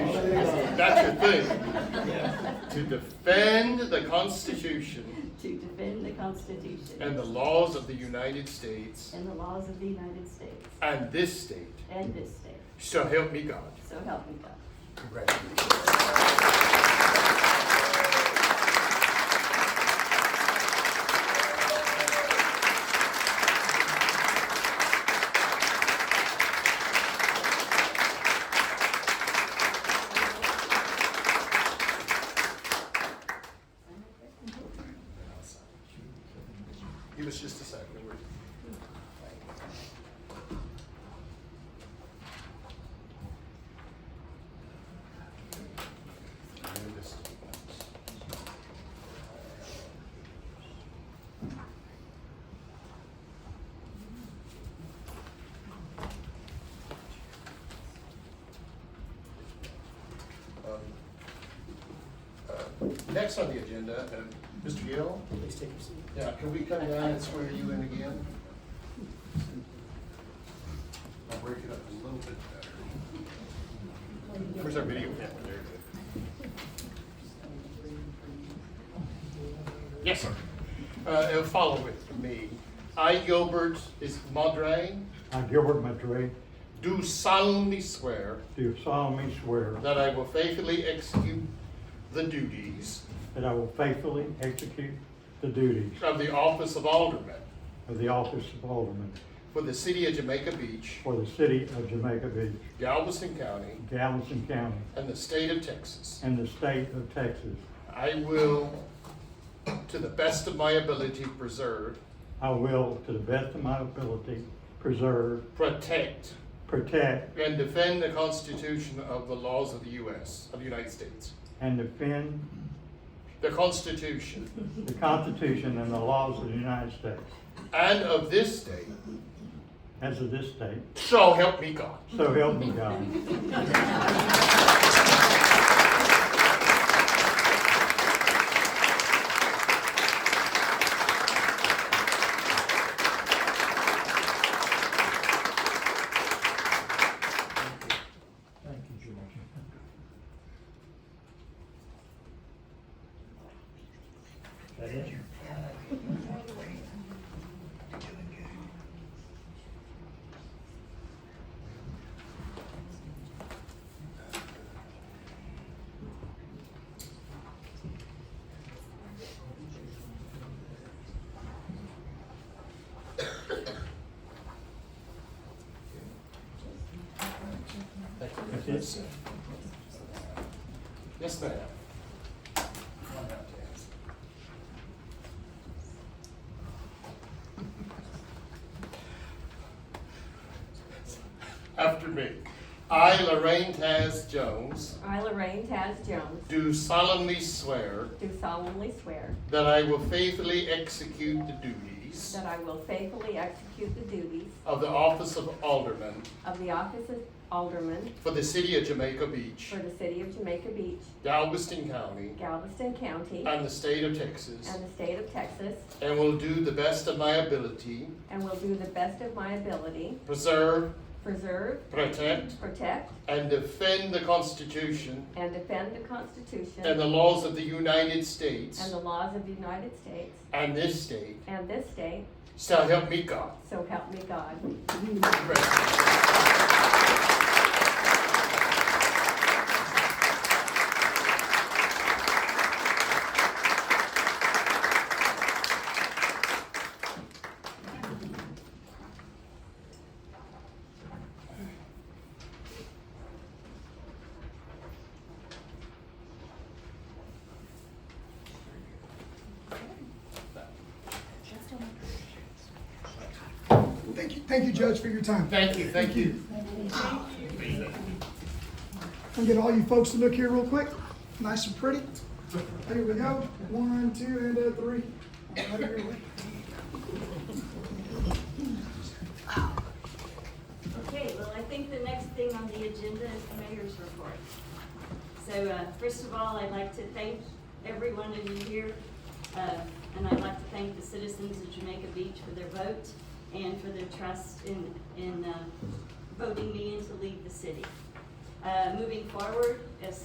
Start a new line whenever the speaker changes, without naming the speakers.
that's the thing. To defend the Constitution
to defend the Constitution
and the laws of the United States
and the laws of the United States
and this state.
and this state.
So help me God.
So help me God.
Congratulations. Give us just a second. We're- Um, uh, Next on the agenda, uh, Mr. Gill.
Please take your seat.
Yeah, can we come down and swear you in again? I'll break it up a little bit better. Where's our video camera? There it is. Yes, sir. Uh, and follow with me. I, Gilbert is Madre,
I, Gilbert Matray,
do solemnly swear
do solemnly swear
that I will faithfully execute the duties
that I will faithfully execute the duties
of the office of Alderman
of the office of Alderman
for the city of Jamaica Beach,
for the city of Jamaica Beach,
Galveston County,
Galveston County,
and the state of Texas.
and the state of Texas.
I will, to the best of my ability, preserve,
I will, to the best of my ability, preserve,
protect,
protect,
and defend the Constitution of the laws of the U.S., of the United States.
and defend
The Constitution
the Constitution and the laws of the United States,
and of this state,
as of this date.
so help me God.
So help me God.
Thank you, George. That it?
That's it.
Yes, ma'am. After me. I, Lorraine Taz Jones,
I, Lorraine Taz Jones,
do solemnly swear
do solemnly swear
that I will faithfully execute the duties
that I will faithfully execute the duties
of the office of Alderman
of the office of Alderman
for the city of Jamaica Beach,
for the city of Jamaica Beach,
Galveston County,
Galveston County,
and the state of Texas,
and the state of Texas,
and will do the best of my ability,
and will do the best of my ability,
preserve,
preserve,
protect,
protect,
and defend the Constitution
and defend the Constitution
and the laws of the United States
and the laws of the United States
and this state.
and this state,
So help me God.
so help me God.
Thank you, thank you, Judge, for your time.
Thank you, thank you.
Can we get all you folks to look here real quick? Nice and pretty. Here we go. One, two, and a three. Right here, wait.
Okay, well, I think the next thing on the agenda is the mayor's report. So, uh, first of all, I'd like to thank every one of you here, uh, and I'd like to thank the citizens of Jamaica Beach for their vote and for their trust in, in, uh, voting me in to lead the city. Uh, moving forward,